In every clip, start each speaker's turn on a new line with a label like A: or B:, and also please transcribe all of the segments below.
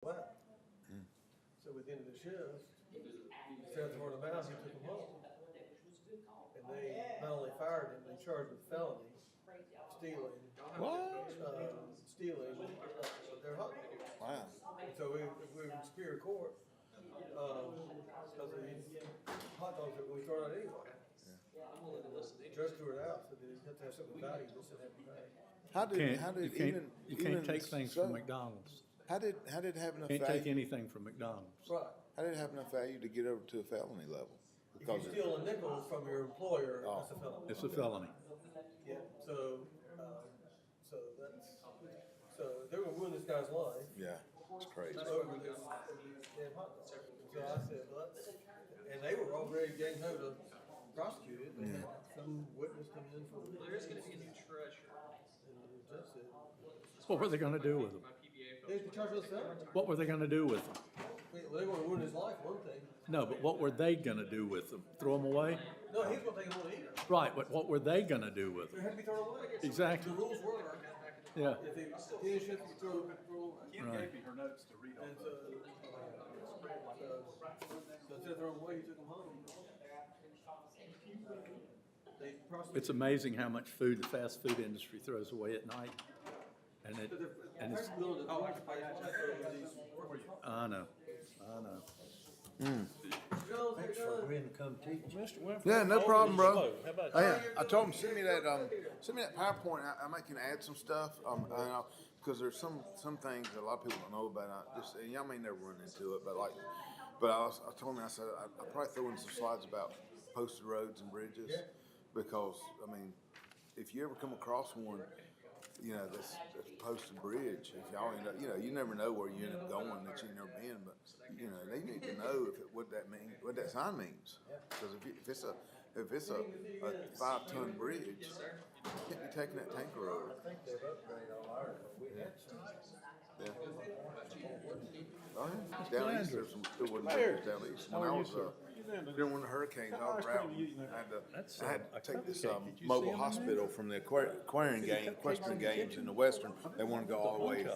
A: Wow. So at the end of the shift, Fair toward the mouse, he took him home. And they not only fired him, they charged him with felony, stealing,
B: What?
A: uh, stealing, uh, their hot dog.
B: Wow.
A: And So we, if we were in Superior Court, um, because of these hot dogs that we throw out anyway. Judge threw it out, so they didn't have to have something valuable, so they had to pay.
B: How did, how
C: Can't, you
B: did
C: can't,
B: even?
C: you can't
B: even
C: take things
B: so,
C: from McDonald's.
B: How did, how did it have enough
C: Can't take
B: value,
C: anything from McDonald's.
A: Right.
B: how did it have enough value to get over to a felony level?
A: If you
B: Because it-
A: steal a nickel from your employer,
B: Oh.
A: that's a felony.
C: It's a felony.
A: Yeah, so, um, so that's, so they were ruining this guy's life.
B: yeah, it's crazy.
A: over this damn hot dog. So I said, well, that's- and they were already gang ho to prosecute it, but some witness come in for it.
D: There is gonna be a new treasure.
A: And the judge said,
C: What were they gonna do with them?
D: My PBA
A: They
D: folks.
A: can charge us that.
C: What were they gonna do with them?
A: They they wanna ruin his life, one thing.
C: No, but what were they gonna do with them? Throw them away?
A: No, he's gonna take him on either.
C: Right, but what were they gonna do with
A: They
C: them?
A: had to be thrown away. The
C: Exactly,
A: rules were,
C: yeah.
A: if they, if they should be thrown, thrown away.
E: Kim gave me her notes to read
A: And
E: off
A: so,
E: of.
A: so, so instead of throwing away, he took them home. They prosecuted.
C: It's amazing how much food the fast food industry throws away at night. And it, and it's,
A: Oh, I can buy that.
C: I know, I know.
A: Thanks for
B: Yeah, no problem, bro. Oh, Yeah, I told him, send me that, um, send me that PowerPoint, I, I might can add some stuff, um, I know, cause there's some, some things that a lot of people don't know about, I just, and y'all may never run into it, but like, but I was, I told him, I said, I, I probably throw in some slides about posted roads and bridges, because, I mean, if you ever come across one, you know, that's, that's posted bridge, if y'all end up, you know, you never know where you end up going that you've never been, but, you know, they need to know if, it- what that mean, what that sign means. Cause if, you- if it's a, if it's a, a five-ton bridge, you can't be taking that tanker over.
F: I think they've upgraded all ours, but we had some.
B: Yeah. Oh, yeah, down east, there's some, there wasn't bridges Oh, down east. When I was, uh, during one of the hurricanes, I was traveling, I had to, I had to take this, um, mobile hospital from the aquar- aquarium game, equestrian games in the western. They wanted to go all the way.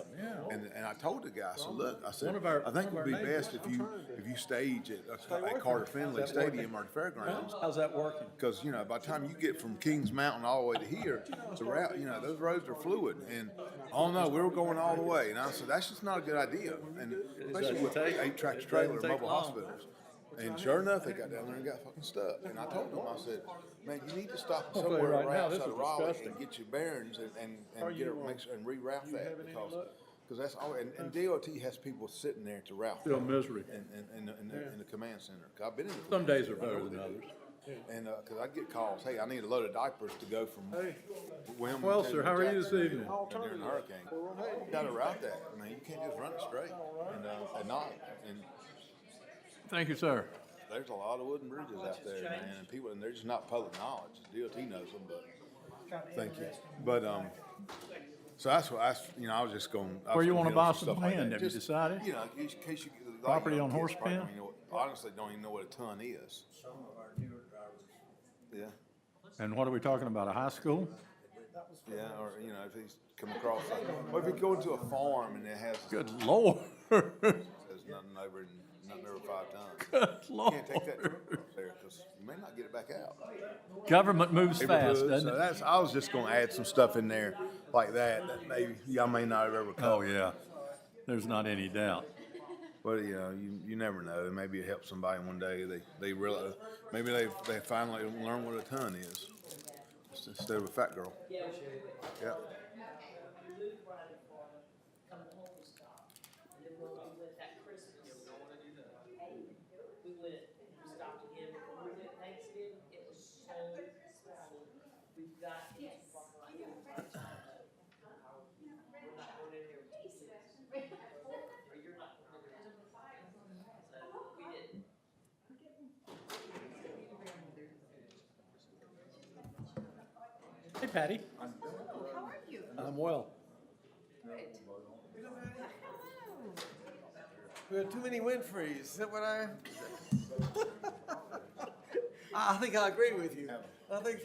B: And, and I told the guy, I said, look, I said, I think it'd be best if you, if you stage at, at Carter Finley Stadium or the fairgrounds.
C: How's that working?
B: Because, you know, by the time you get from Kings Mountain all the way to here, the route, you know, those roads are fluid. And, oh no, we were going all the way. And I said, that's just not a good idea. And especially with eight tractor trailer and mobile hospitals. And sure enough, they got down there and got fucking stuck. And I told them, I said, man, you need to stop
C: I'll tell you
B: somewhere
C: right
B: right
C: now, this
B: outside of
C: is
B: Raleigh
C: disgusting. uh,
B: and get your bearings and, and, and get, it- make sure- and reroute that because, because that's all, and, and DOT has people sitting there to route.
C: Feel misery.
B: In, in, in, the- in the, in the command center. 'Cause I've been in the
C: Some
B: command
C: days are
B: center. I know
C: better
B: what
C: than
B: they do.
C: others.
B: And, uh, cause I'd get calls, hey, I need a load of diapers to go from Wilmington.
C: Well, sir, how are you this evening?
B: During the hurricane. You Gotta route that, I mean, you can't just run it straight and, uh, at night. And
C: Thank you, sir.
B: there's a lot of wooden bridges out there, man, and people, and they're just not public knowledge. DOT knows them, but, thank you. But, um, so that's what, I, s- you know, I was just going.
C: Where you wanna buy some land? Have you decided?
B: You know, in case you. like, you
C: Property
B: know,
C: on
B: kids
C: Horse
B: probably don't
C: Pen?
B: even know- Honestly, don't even know what a ton is.
F: Some of our newer drivers,
B: Yeah.
C: And what are we talking about, a high school?
B: Yeah, or, you know, if he's come across, like, or if you go into a farm and it has,
C: Good lord, good
B: has nothing over, nothing over five tons. You
C: lord.
B: can't take that truck up there, cause you may not get it back out.
C: Government moves fast,
B: So
C: doesn't it?
B: that's, I was just gonna add some stuff in there like that, that maybe, y'all may not have ever
C: Oh,
B: caught.
C: yeah, there's not any doubt.
B: But, you know, you, you never know, maybe it helps somebody one day, they, they realize, maybe they, they finally learn what a ton is. Instead of a fat girl. Yeah.
G: We went, we stopped again, before we went Thanksgiving, it was so crowded. We've got to walk around. We're not going in there with two kids. Or you're not going in there. So, we didn't.
C: Hey, Patty.
H: Hello, how are you?
C: I'm well.
H: Good. Hello.
A: We had too many Winfrey's, is that what I? I I think I agree with you. I think,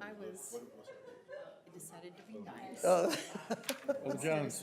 H: I was, I decided to
I: be nice.
J: Uh,
H: Jones.